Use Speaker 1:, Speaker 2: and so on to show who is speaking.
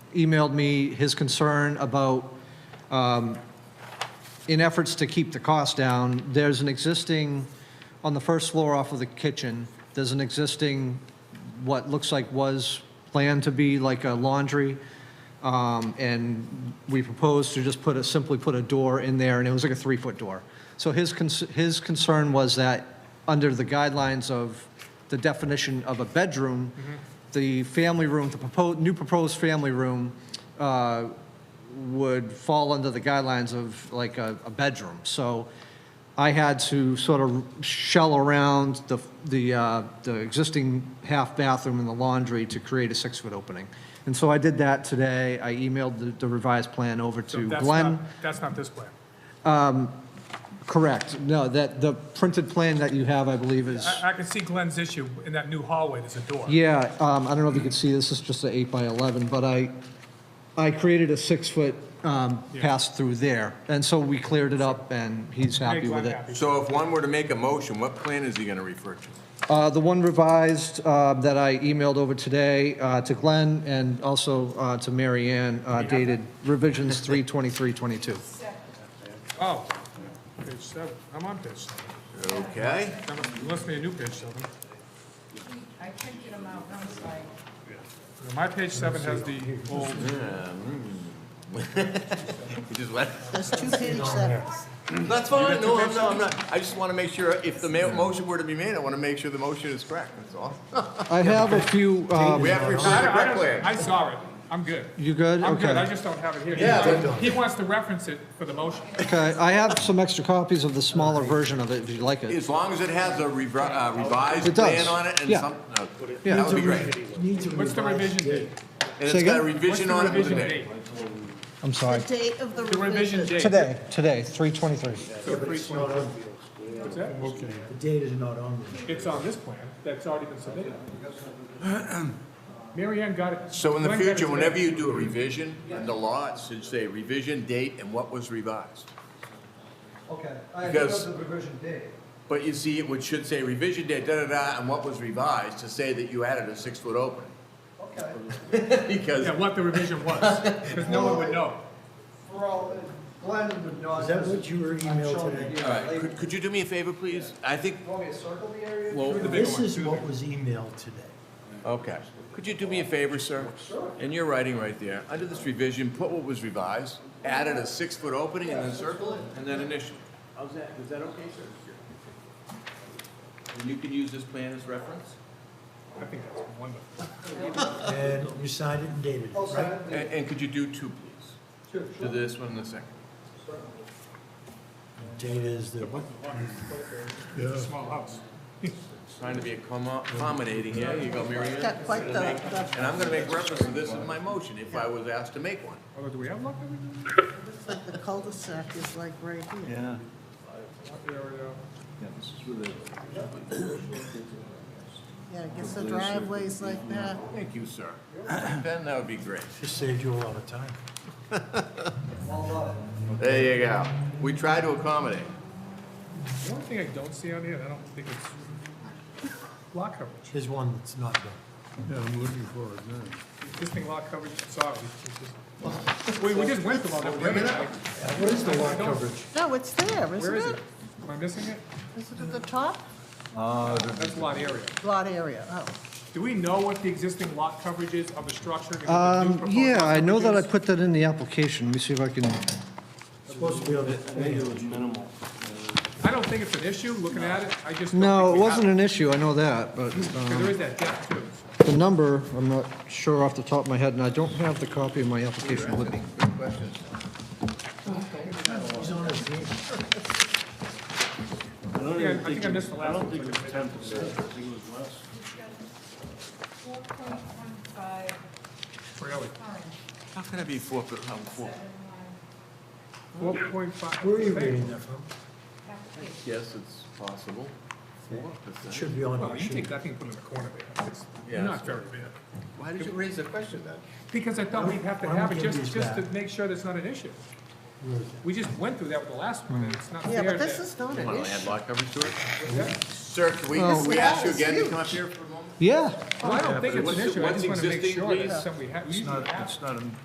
Speaker 1: emailed me his concern about, um, in efforts to keep the cost down, there's an existing, on the first floor off of the kitchen, there's an existing, what looks like was planned to be like a laundry. Um, And we proposed to just put a, simply put a door in there, and it was like a three-foot door. So his, cons- his concern was that, under the guidelines of the definition of a bedroom, the family room, the proposed, new proposed family room uh, would fall under the guidelines of like a, a bedroom. So I had to sort of shell around the, the, uh, the existing half bathroom and the laundry to create a six-foot opening. And so I did that today. I emailed the- the revised plan over
Speaker 2: So
Speaker 1: to
Speaker 2: that's
Speaker 1: Glenn.
Speaker 2: not- That's not this plan.
Speaker 1: Correct. No, that, the printed plan that you have, I believe, is.
Speaker 2: I, I can see Glenn's issue in that new hallway, there's a door.
Speaker 1: Yeah, um, I don't know if you can see, this is just an eight by 11, but I, I created a six-foot um, pass through there, and so we cleared it up, and he's
Speaker 2: Make
Speaker 1: happy
Speaker 2: Glenn
Speaker 1: with it.
Speaker 2: happy.
Speaker 3: So if one were to make a motion, what plan is he going to refer to?
Speaker 1: Uh, The one revised uh, that I emailed over today uh, to Glenn and also uh, to Mary Ann uh, dated revisions 32322.
Speaker 2: Oh, page seven, I'm on page seven.
Speaker 3: Okay,
Speaker 2: I'm listening to new page seven.
Speaker 4: I printed them out, I'm sorry.
Speaker 2: Now, My page seven has the old,
Speaker 3: you just let,
Speaker 5: There's two page sevens.
Speaker 3: that's fine, no, I'm not, I'm not, I just want to make sure, if the ma- motion were to be made, I want to make sure the motion is correct, that's all.
Speaker 1: I have a few, um,
Speaker 3: We have to refer
Speaker 2: I,
Speaker 3: to the
Speaker 2: I
Speaker 3: correct
Speaker 2: don't-
Speaker 3: plan.
Speaker 2: I saw it, I'm good.
Speaker 1: you good?
Speaker 2: I'm good, I
Speaker 1: Okay.
Speaker 2: just don't have it here.
Speaker 3: Yeah,
Speaker 2: He wants- He wants to reference it for the motion.
Speaker 1: Okay, I have some extra copies of the smaller version of it, if you'd like it.
Speaker 3: As long as it has a revi- uh, revised
Speaker 1: It does,
Speaker 3: plan on it and
Speaker 1: yeah.
Speaker 3: some, uh,
Speaker 1: Yeah.
Speaker 3: that would be great. And
Speaker 2: What's the revision date?
Speaker 3: it's
Speaker 1: Say again?
Speaker 3: got a
Speaker 2: What's
Speaker 3: revision
Speaker 2: the
Speaker 3: on it
Speaker 2: revision
Speaker 3: today.
Speaker 2: date?
Speaker 1: I'm
Speaker 5: The
Speaker 1: sorry.
Speaker 5: date of the
Speaker 2: The revision
Speaker 5: revision.
Speaker 2: date.
Speaker 1: Today, today, 323.
Speaker 2: So three twenty-
Speaker 6: The
Speaker 2: what's that?
Speaker 6: data is not on there.
Speaker 2: It's on this plan, that's already been submitted. Mary Ann got it.
Speaker 3: So in the
Speaker 2: Glenn got it
Speaker 3: future,
Speaker 2: today.
Speaker 3: whenever you do a revision, in the law, it should say revision date and what was revised.
Speaker 1: Okay.
Speaker 3: Because- have
Speaker 1: revision date.
Speaker 3: But you see, it would, should say revision date, da-da-da, and what was revised to say that you added a six-foot opening.
Speaker 1: Okay.
Speaker 3: Because,
Speaker 2: Yeah, what the revision was, because no one would know.
Speaker 1: Well, Glenn would not.
Speaker 6: Is that what you were emailed today?
Speaker 3: all right, could, could you do me a favor, please? I think,
Speaker 1: Want me to circle the area?
Speaker 3: well,
Speaker 6: This is what was emailed today.
Speaker 3: okay. Could you do me a favor, sir? And you're writing right there, under this revision, put what was revised, added a six-foot opening, and then circle it, and then initial. How's that, is that okay, sir? And you can use this plan as reference?
Speaker 2: I think that's wonderful.
Speaker 6: And you signed it and dated it, right?
Speaker 3: And, and could you do two, please? Do this one and the second.
Speaker 6: Data is the,
Speaker 2: It's a small house.
Speaker 3: Trying to be accommo- accommodating, yeah, you go, Mary Ann.
Speaker 5: Got quite the, the
Speaker 3: And I'm gonna make reference to this in my motion if I was asked to make one.
Speaker 2: Although, do we have luck?
Speaker 5: looks like the cul-de-sac is like right here.
Speaker 7: Yeah.
Speaker 2: There we go.
Speaker 5: Yeah, I guess the driveway's like that.
Speaker 3: Thank you, sir. Ben, that would be great.
Speaker 6: just saved you a lot of time.
Speaker 3: There you go. We try to accommodate.
Speaker 2: The only thing I don't see on here, I don't think it's lot coverage.
Speaker 6: Here's one that's not done.
Speaker 2: Existing lot coverage, sorry. it's just- We, we just went through all that. Where
Speaker 6: What is the lot coverage?
Speaker 5: No, it's there,
Speaker 2: is
Speaker 5: isn't
Speaker 2: it?
Speaker 5: it?
Speaker 2: Am I missing it?
Speaker 5: Is it at the top?
Speaker 2: That's lot area.
Speaker 5: Lot area, oh.
Speaker 2: Do we know what the existing lot coverage is of the structure? Because the new
Speaker 1: Um,
Speaker 2: proposed
Speaker 1: yeah,
Speaker 2: lot
Speaker 1: I know that I
Speaker 2: coverage
Speaker 1: put that in the application. Let me see if I can,
Speaker 6: It's supposed to be on the,
Speaker 7: minimal.
Speaker 2: is- I don't think it's an issue, looking at it, I just. don't
Speaker 1: no,
Speaker 2: think
Speaker 1: it
Speaker 2: we have
Speaker 1: wasn't an issue, I know that, but
Speaker 2: Because
Speaker 1: um,
Speaker 2: there is that depth too.
Speaker 1: the number, I'm not sure off the top of my head, and I don't have the copy of my application with me.
Speaker 3: Good questions.
Speaker 6: he's on his deed.
Speaker 7: I don't
Speaker 2: Yeah, I
Speaker 7: even
Speaker 2: think I
Speaker 7: it-
Speaker 2: missed the last
Speaker 7: I
Speaker 2: one.
Speaker 7: don't think it was ten percent, I think it was less.
Speaker 4: Four point one five
Speaker 2: Really?
Speaker 4: times
Speaker 3: How can it be four foot, um, four?
Speaker 2: Four point five.
Speaker 6: Where are you reading that from?
Speaker 4: application.
Speaker 3: Yes, it's possible. Four
Speaker 6: It
Speaker 3: percent?
Speaker 6: should be on
Speaker 2: Well,
Speaker 6: your
Speaker 2: you
Speaker 6: sheet.
Speaker 2: take that thing, put it in the corner there, it's
Speaker 3: Yeah.
Speaker 2: not very big.
Speaker 3: Why did you raise the question then?
Speaker 2: Because I thought we'd have to
Speaker 6: Why don't
Speaker 2: have
Speaker 6: we
Speaker 2: it
Speaker 6: give
Speaker 2: just,
Speaker 6: these
Speaker 2: just to
Speaker 6: back?
Speaker 2: make sure that's not an issue.
Speaker 6: Where is
Speaker 2: We just went through that with the last one, and it's not fair
Speaker 5: Yeah, but this
Speaker 2: that-
Speaker 5: is not an
Speaker 3: Want to add
Speaker 5: issue.
Speaker 3: lot coverage to it?
Speaker 2: Yeah.
Speaker 3: Sir, can we,
Speaker 1: Oh.
Speaker 3: can we ask you again to come up here for a moment?
Speaker 1: Yeah.
Speaker 2: Well, I don't think it's
Speaker 3: What's-
Speaker 2: an issue, I
Speaker 3: what's
Speaker 2: just wanna make
Speaker 3: existing,
Speaker 2: sure
Speaker 3: please?
Speaker 2: that's something we have, we usually have.
Speaker 7: It's not a